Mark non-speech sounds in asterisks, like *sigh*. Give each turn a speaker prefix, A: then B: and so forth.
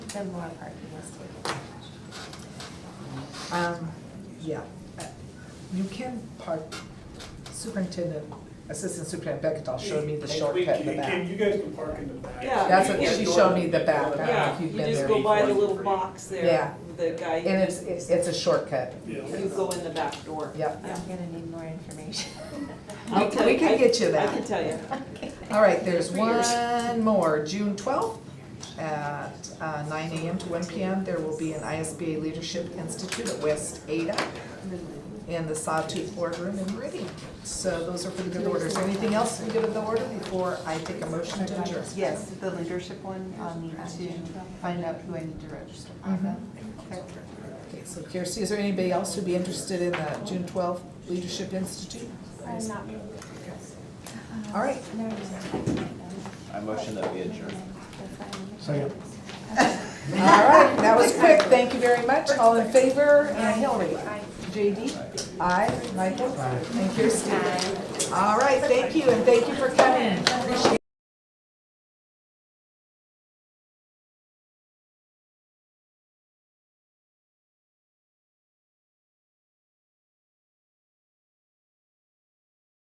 A: the more parking is taken.
B: Um, yeah, Uh, you can park, superintendent, assistant superintendent Beckett showed me the
C: Hey,
B: shortcut in the
C: Kim, Kim,
B: back.
C: you guys can park in the back.
D: Yeah.
B: That's what,
D: Yeah.
B: she showed me the back, I don't know
D: Yeah,
B: if you've
D: you
B: been
D: just
B: there.
D: go
B: And
D: by the little box there,
B: Yeah.
D: with the guy,
B: it's, it's it's a shortcut,
D: you
C: Yeah.
D: go in the back door.
B: yep.
A: I'm gonna need more information. *laughs*
D: I'll
B: We
D: tell
B: we
D: you-
B: can
D: I-
B: get you
D: I
B: that.
D: can tell you.
B: All right, there's
A: For yours.
B: one more, June twelfth, at uh, nine AM to one PM, there will be an ISBA Leadership Institute at West Ada in the Sawtooth Boardroom in Meridian. So those are for the good orders. Anything else for the good of the order before I take a motion to adjourn?
E: Yes, the leadership one, I'll need to find out who I need to register.
B: Mhm.
E: Okay.
B: Okay, so Kirsty, is there anybody else who'd be interested in the June twelfth Leadership Institute?
A: I'm not.
B: All right.
A: No, no, no.
F: I motion that we adjourn.
C: Second.
B: All right, that was quick. Thank you very much. All in favor? And Hillary?
A: Aye.
B: JD? Aye. Michael? And Kirsty? All right, thank you, and thank you for coming. Appreciate it.